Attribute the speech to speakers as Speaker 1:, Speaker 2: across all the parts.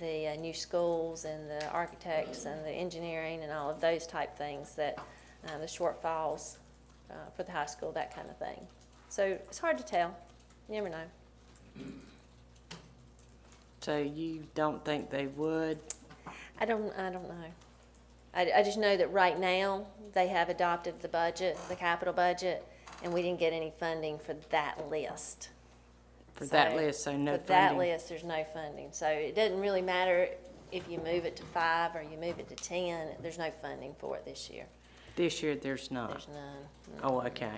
Speaker 1: the uh, new schools and the architects and the engineering and all of those type things that, uh, the shortfalls uh, for the high school, that kind of thing. So it's hard to tell. You never know.
Speaker 2: So you don't think they would?
Speaker 1: I don't, I don't know. I, I just know that right now, they have adopted the budget, the capital budget, and we didn't get any funding for that list.
Speaker 2: For that
Speaker 1: So-
Speaker 2: list, so no
Speaker 1: For that
Speaker 2: funding.
Speaker 1: list, there's no funding. So it doesn't really matter if you move it to five or you move it to ten, there's no funding for it this year.
Speaker 2: This year, there's not.
Speaker 1: There's none,
Speaker 2: Oh, okay.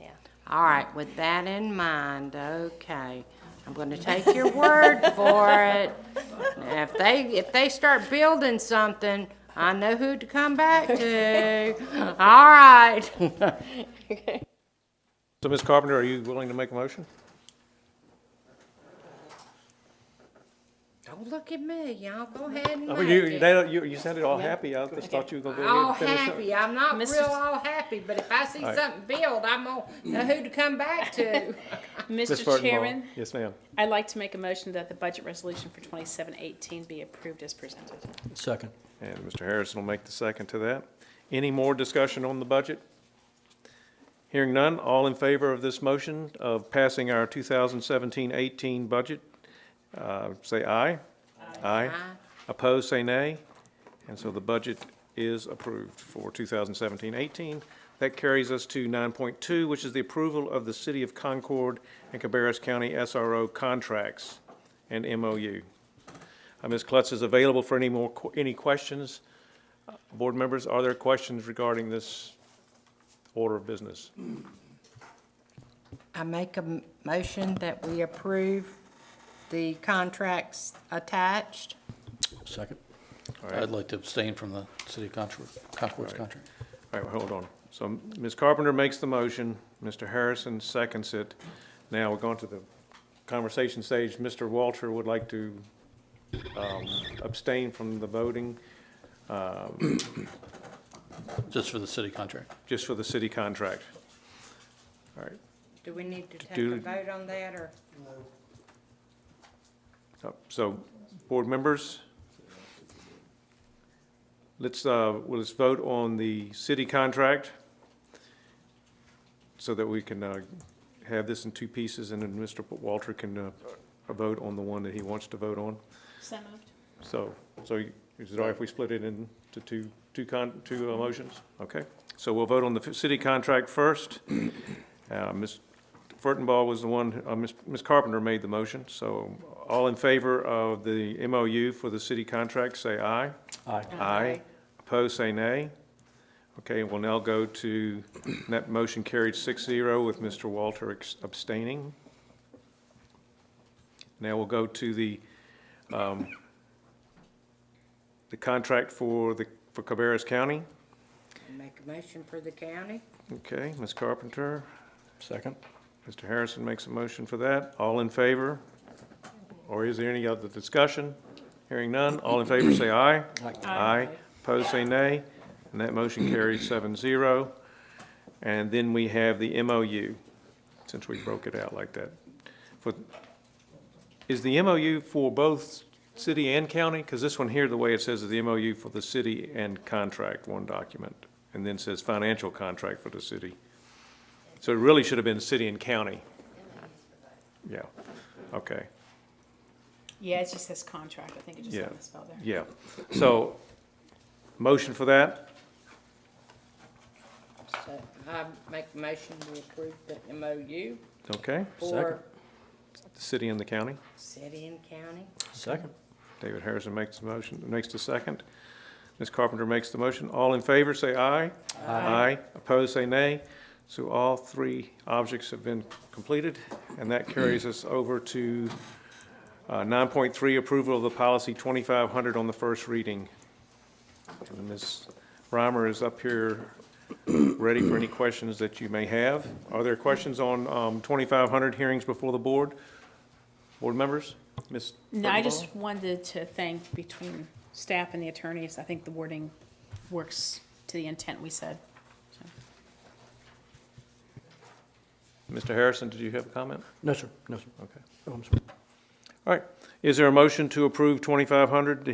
Speaker 1: yeah.
Speaker 2: All right, with that in mind, okay, I'm gonna take your word for it. Now, if they, if they start building something, I know who to come back to. All right.
Speaker 3: So, Ms. Carpenter, are you willing to make a motion?
Speaker 2: Don't Oh, look at me, y'all, go ahead and
Speaker 3: I
Speaker 2: make
Speaker 3: mean, Oh, you,
Speaker 2: it.
Speaker 3: they, you, you sounded all happy, I just thought you were gonna go
Speaker 2: All
Speaker 3: ahead and finish
Speaker 2: happy, I'm not
Speaker 4: Mr.
Speaker 2: real all happy, but if I see
Speaker 3: right.
Speaker 2: something build, I'm gonna know who to come back to.
Speaker 3: up.
Speaker 4: Mr. Chairman,
Speaker 3: Yes, ma'am.
Speaker 4: I'd like to make a motion that the budget resolution for 2718 be approved as presented.
Speaker 5: Second.
Speaker 3: And Mr. Harrison will make the second to that. Any more discussion on the budget? Hearing none, all in favor of this motion of passing our 2017-18 budget, uh, say aye. Aye. Opposed, say nay. And so the budget is approved for 2017-18. That carries us to 9.2, which is the approval of the City of Concord and Cabarrus County SRO contracts and MOU. Uh, Ms. Klutz is available for any more, que- any questions. Uh, Board members, are there questions regarding this order of business?
Speaker 2: I make a m- motion that we approve the contracts attached.
Speaker 5: Second.
Speaker 3: right.
Speaker 5: I'd like to abstain from the city of Concord, Concord's contract.
Speaker 3: All right, well, hold on. So Ms. Carpenter makes the motion, Mr. Harrison seconds it. Now we're going to the conversation stage. Mr. Walter would like to um, abstain from the voting
Speaker 5: just for the city contract.
Speaker 3: just for the city contract. All right,
Speaker 2: Do we need to take
Speaker 3: Do-
Speaker 2: a vote on that, or?
Speaker 3: Uh, So, board members, let's, uh, well, let's vote on the city contract so that we can uh, have this in two pieces, and then Mr. Walter can uh, vote on the one that he wants to vote on.
Speaker 4: So moved.
Speaker 3: So, so you- is it all right if we split it into two, two con, two uh, motions? Okay, so we'll vote on the f- city contract first. Uh, Ms. Furtenball was the one, uh, Ms. Ms. Carpenter made the motion, so all in favor of the MOU for the city contract, say aye.
Speaker 5: Aye.
Speaker 3: Aye. Opposed, say nay. Okay, we'll now go to, that motion carried six zero with Mr. Walter ex- abstaining. Now we'll go to the, um, the contract for the, for Cabarrus County.
Speaker 2: Make a motion for the county?
Speaker 3: Okay, Ms. Carpenter,
Speaker 5: Second.
Speaker 3: Mr. Harrison makes a motion for that. All in favor? Or is there any other discussion? Hearing none, all in favor say aye. Aye. Opposed say nay. And that motion carries seven zero. And then we have the MOU, since we broke it out like that. For- Is the MOU for both city and county? Because this one here, the way it says is the MOU for the city and contract, one document. And then says financial contract for the city. So it really should have been city and county. Yeah, okay,
Speaker 4: Yeah, it just says contract. I think it just
Speaker 3: Yeah.
Speaker 4: got misspelled there.
Speaker 3: yeah. So, motion for that?
Speaker 2: So I make a motion to approve the MOU
Speaker 3: Okay,
Speaker 2: for
Speaker 3: the city and the county.
Speaker 2: city and county.
Speaker 5: Second.
Speaker 3: David Harrison makes the motion, makes the second. Ms. Carpenter makes the motion. All in favor, say aye. Aye. Opposed, say nay. So all three objects have been completed, and that carries us over to uh, 9.3, approval of the policy 2500 on the first reading. And Ms. Reimer is up here, ready for any questions that you may have. Are there questions on um, 2500 hearings before the board? Board members? Ms.
Speaker 4: No, I
Speaker 3: Furtenbaum?
Speaker 4: just wanted to thank between staff and the attorneys. I think the wording works to the intent we said. So,
Speaker 3: Mr. Harrison, did you have a comment?
Speaker 5: No, sir, no, sir.
Speaker 3: Okay.
Speaker 5: Oh, I'm sorry.
Speaker 3: All right, is there a motion to approve twenty-five hundred